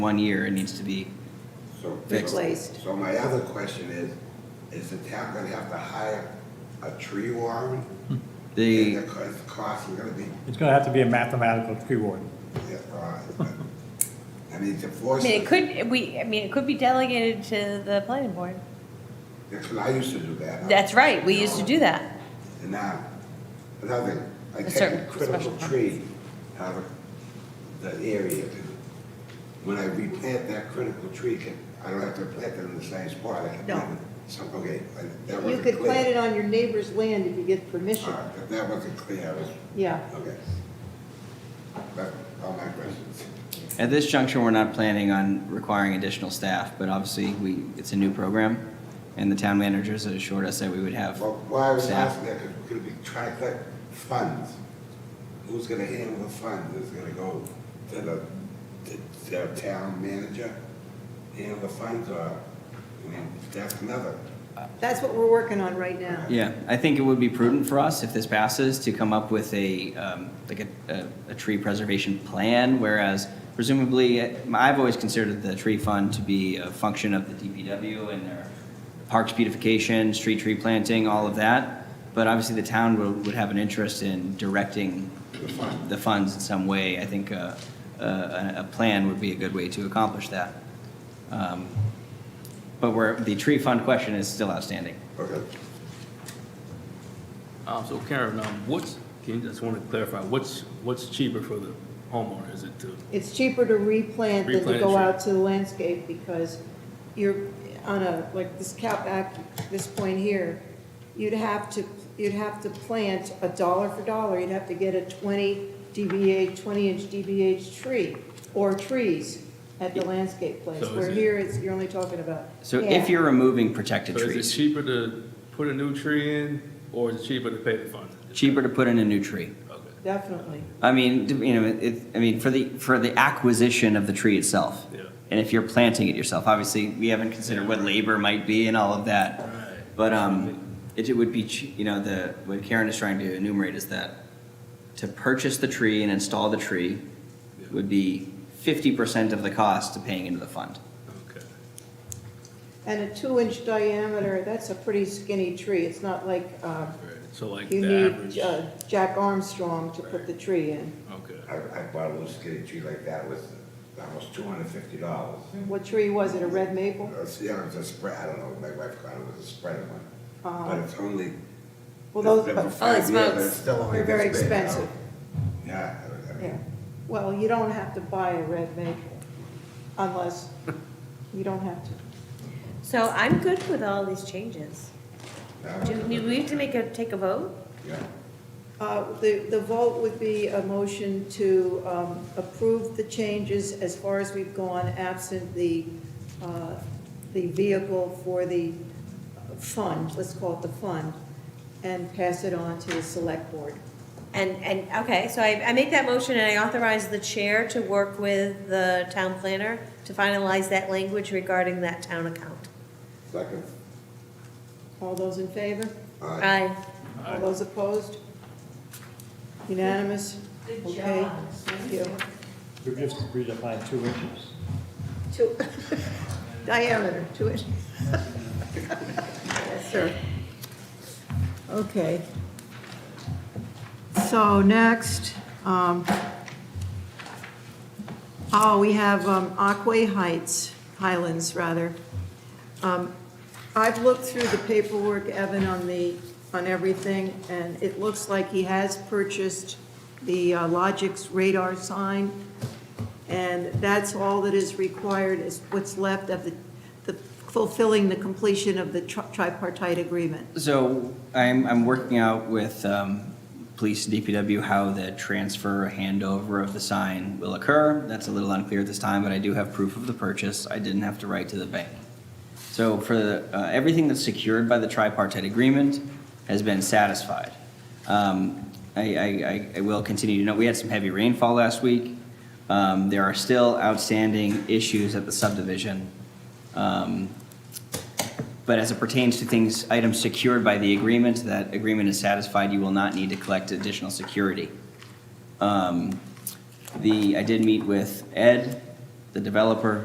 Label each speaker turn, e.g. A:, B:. A: one year, it needs to be,
B: So-
A: Fixed.
C: Replaced.
B: So my other question is, is the town gonna have to hire a tree warden? And
A: the,
B: the co- is the cost is gonna be,
D: It's gonna have to be a mathematical tree warden.
B: yeah, uh, I mean, to
C: I
B: force
C: mean, it
B: it,
C: could, we, I mean, it could be delegated to the planning board.
B: because I used to do that.
C: That's right, we used to do that.
B: And now, another, I
C: A
B: take
C: certain
B: a critical
C: special permit.
B: tree out of the area. When I replant that critical tree, can- I don't have to plant it in the same spot. I can
E: No.
B: plant it Some, okay, I- that wasn't clear.
E: You could plant it on your neighbor's land if you get permission.
B: All right, that- that wasn't clear, I was,
E: Yeah,
B: okay. That's all my questions.
A: at this juncture, we're not planning on requiring additional staff, but obviously, we, it's a new program, and the town managers had assured us that we would have
B: Well, why I was
A: staff.
B: asking that, because we're gonna be trying to collect funds. Who's gonna handle the funds? Is it gonna go to the, to the town manager? Handle the funds, or, I mean, that's another.
E: that's what we're working on right now.
A: Yeah, I think it would be prudent for us, if this passes, to come up with a, um, like a, a, a tree preservation plan, whereas presumably, eh, I've always considered the tree fund to be a function of the DPW and their parks beautification, street tree planting, all of that. But obviously, the town would, would have an interest in directing the funds in some way. I think, uh, a, a, a plan would be a good way to accomplish that. Um, But where, the tree fund question is still outstanding.
B: Okay.
F: Um, so Karen, um, what's, can you, just want to clarify, what's, what's cheaper for the homeowner? Is it to,
E: It's cheaper to replant than to
F: Replant,
E: go
F: sure.
E: out to the landscape because you're on a, like this cap back, this point here, you'd have to, you'd have to plant a dollar for dollar, you'd have to get a twenty DBH, twenty inch DBH tree or trees at the landscape place,
F: So is
E: where
F: it-
E: here it's, you're only talking about.
A: So
E: half.
A: if you're removing protected
F: so is it
A: trees,
F: cheaper to put a new tree in or is it cheaper to pay the fund?
A: cheaper to put in a new tree.
F: Okay.
E: Definitely.
A: I mean, d- you know, it, I mean, for the, for the acquisition of the tree itself.
F: Yeah.
A: And if you're planting it yourself, obviously, we haven't considered what labor might be and all of that.
F: Right.
A: But, um, it it would be, ch- you know, the, what Karen is trying to enumerate is that to purchase the tree and install the tree would be fifty percent of the cost to paying into the fund.
F: Okay.
E: And a two-inch diameter, that's a pretty skinny tree. It's not like uh,
F: Right. So like
E: you
F: the average,
E: need uh,
F: okay.
E: Jack Armstrong to put the tree in.
B: I, I bought a little skinny tree like that, was almost two hundred and fifty dollars.
E: What tree was it, a red maple?
B: Yeah, it was a spread, I don't know, my wife called it, it was a spread one.
E: Uh-huh.
B: But it's only.
E: Well, those,
B: it's been
E: but-
B: five
C: Holy
B: years,
C: smokes.
B: but it's still only
E: They're very
B: this big, you know?
E: expensive.
B: Yeah, I- I mean,
E: yeah. Well, you don't have to buy a red maple unless, you don't have to.
C: So I'm good with all these changes.
B: yeah.
C: Do we need to make a, take a vote?
B: Yeah.
E: Uh, The, the vote would be a motion to um, approve the changes as far as we've gone, absent the, uh, the vehicle for the fund, let's call it the fund, and pass it on to the select board.
C: And, and, okay, so I, I make that motion and I authorize the chair to work with the town planner to finalize that language regarding that town account.
B: Second.
E: All those in favor?
B: Aye.
C: Aye.
E: All those opposed? Unanimous? Okay. Thank you.
D: We've just redefined two inches.
E: Two, diameter, two inches. Yes, sir. Okay. So next, um, oh, we have um, Aquay Heights, Highlands, rather. Um, I've looked through the paperwork, Evan, on the, on everything, and it looks like he has purchased the uh, Logix radar sign, and that's all that is required, is what's left of the, the fulfilling the completion of the tri- tripartite agreement.
A: So I'm, I'm working out with um, police and DPW how the transfer or handover of the sign will occur. That's a little unclear at this time, but I do have proof of the purchase. I didn't have to write to the bank. So for the, uh, everything that's secured by the tripartite agreement has been satisfied. Um, I, I, I- I will continue to know, we had some heavy rainfall last week. Um, There are still outstanding issues at the subdivision. Um, but as it pertains to things, items secured by the agreement, that agreement is satisfied, you will not need to collect additional security. Um, The, I did meet with Ed the developer